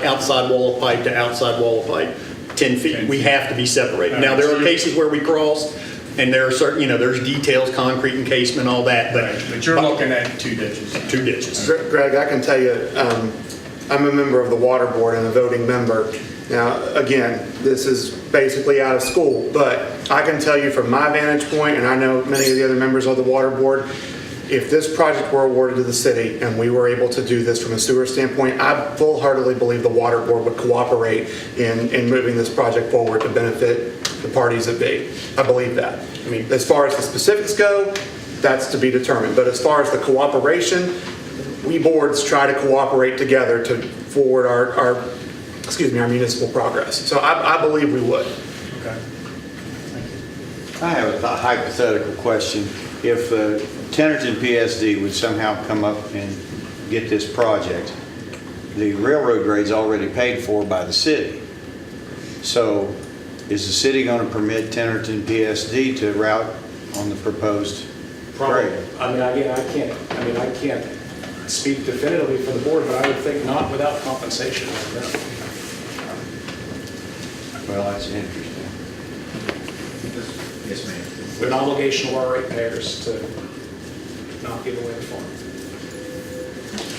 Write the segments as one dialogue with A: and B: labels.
A: outside wall of pipe to outside wall of pipe, 10 feet. We have to be separated. Now, there are cases where we cross, and there are certain, you know, there's details, concrete encasement, all that, but.
B: But you're looking at two ditches.
A: Two ditches.
C: Gre- Greg, I can tell you, um, I'm a member of the water board and a voting member. Now, again, this is basically out of school, but I can tell you from my vantage point, and I know many of the other members of the water board, if this project were awarded to the city and we were able to do this from a sewer standpoint, I full-heartedly believe the water board would cooperate in, in moving this project forward to benefit the parties that be. I believe that. I mean, as far as the specifics go, that's to be determined, but as far as the cooperation, we boards try to cooperate together to forward our, our, excuse me, our municipal progress. So I, I believe we would.
D: I have a hypothetical question. If uh, Tenerton PSD would somehow come up and get this project, the railroad grade's already paid for by the city. So is the city going to permit Tenerton PSD to route on the proposed
E: Probably.
D: grade?
E: I mean, again, I can't, I mean, I can't speak definitively for the board, but I would think not without compensation.
D: Well, that's interesting.
F: Yes, ma'am.
E: With an obligation to our ratepayers to not give away the farm.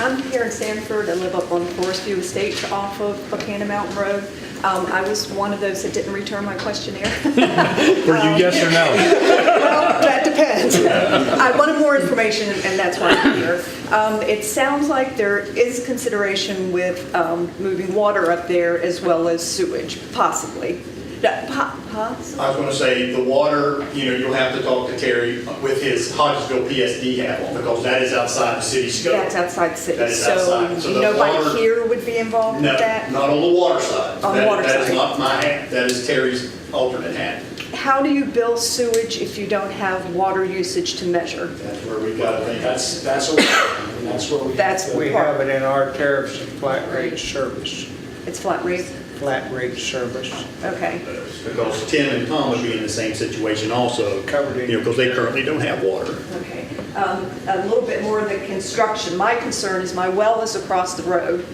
G: I'm Karen Sanford, I live up on Forest View Estates off of Buchanan Mountain Road. Um, I was one of those that didn't return my questionnaire.
B: Were you yes or no?
G: Well, that depends. I wanted more information, and that's why I'm here. Um, It sounds like there is consideration with um, moving water up there as well as sewage, possibly. That po- Possibly?
A: I was going to say, the water, you know, you'll have to talk to Terry with his Hodgesville PSD hat on, because that is outside the city scope.
G: That's outside the
A: That
G: city,
A: is
G: so
A: outside. So the water-
G: nobody here would be involved
A: No,
G: with that?
A: not on the water side.
G: On the
A: That-
G: water
A: That is
G: side.
A: not my hat, that is Terry's alternate hat.
G: How do you bill sewage if you don't have water usage to measure?
A: That's where we got to think, that's
E: That's, that's what, I mean, that's where we.
G: That's
H: We have
G: part,
H: it in our tariffs, a flat rate service,
G: it's flat rate,
H: flat rate service.
G: okay.
A: Because Tim and Tom would be in the same situation also.
H: Covered in-
A: You know, because they currently don't have water.
G: Okay, um, a little bit more of the construction. My concern is my well is across the road.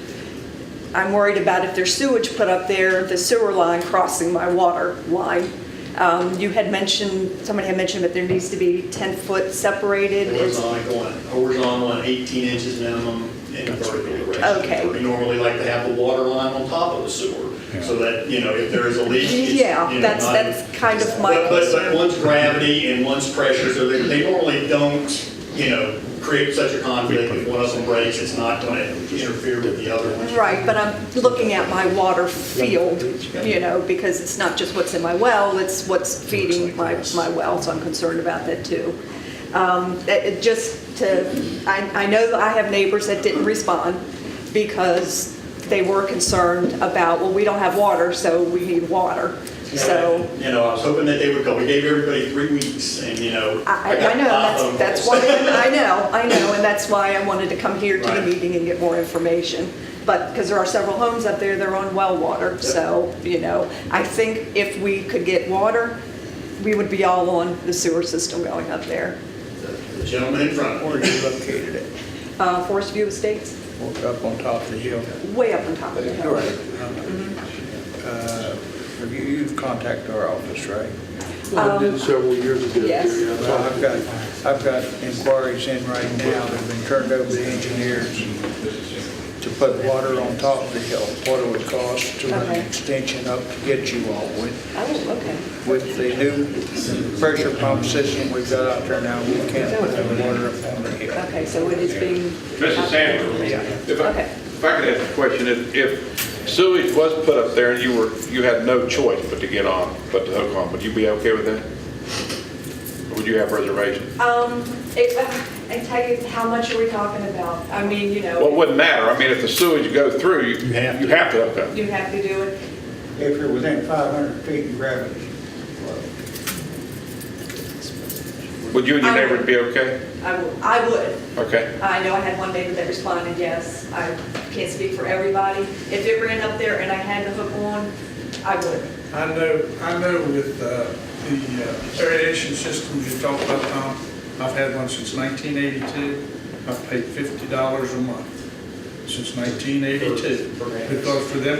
G: I'm worried about if there's sewage put up there, the sewer line crossing my water line. Um, You had mentioned, somebody had mentioned that there needs to be 10-foot separated. Is-
A: Horizontal one, horizontal one, 18 inches minimum in a vertical direction.
G: Okay.
A: We normally like to have the water line on top of the sewer, so that, you know, if there is a leak. it's,
G: Yeah,
A: you know,
G: that's,
A: not-
G: that's kind of my
A: But- But, but
G: concern.
A: one's gravity and one's pressure, so they, they normally don't, you know, create such a conflict. If one of them breaks, it's not going to interfere with the other one.
G: Right, but I'm looking at my water field, you know, because it's not just what's in my well, it's what's feeding my, my well, so I'm concerned about that too. Um, it- it Just to, I, I know that I have neighbors that didn't respond because they were concerned about, well, we don't have water, so we need water. So
A: You know, I was hoping that they would go. We gave everybody three weeks and, you know.
G: I, I
A: got
G: I know,
A: five phone
G: that's,
A: calls.
G: that's why, I know, I know, and that's why I wanted to come here to the
A: Right.
G: meeting and get more information. But, because there are several homes up there, they're on well water, so, you know, I think if we could get water, we would be all on the sewer system going up there.
A: The gentleman in front of me.
H: Where you located it,
G: Uh, Forest View Estates,
H: up on top of the hill.
G: way up on top of the hill.
H: Uh, Have you, you've contacted our office, right?
I: I did several years ago.
G: yes.
I: Jerry. I
H: Well, I've got, I've got inquiries in right now that have been turned over to engineers to put water on top of the hill, what it would cost to run
G: Okay.
H: an extension up to get you all with,
G: Oh, okay.
H: with the new pressure pump system we've got out there now, we can't put the water up on the hill.
G: Okay, so it is being.
J: Mrs. Sandberg. If I,
G: Okay.
J: if I could ask a question, if, if sewage was put up there and you were, you had no choice but to get on, but to hook on, would you be okay with that? Or would you have reservations?
G: Um, it, I tell you, how much are we talking about? I mean, you know.
J: Well, it wouldn't matter, I mean, if the sewage goes through, you, you have to hook up.
G: You have to do it.
H: If you're within 500 feet in gravity.
J: Would you and your
G: I-
J: neighbor be okay?
G: I w- I would.
J: Okay.
G: I know I had one neighbor that responded, yes. I can't speak for everybody. If it ran up there and I had the hook on, I would.
K: I know, I know with uh, the uh, aeration system you talked about, Tom, I've had one since 1982. I've paid $50 a month. since 1982. Because for them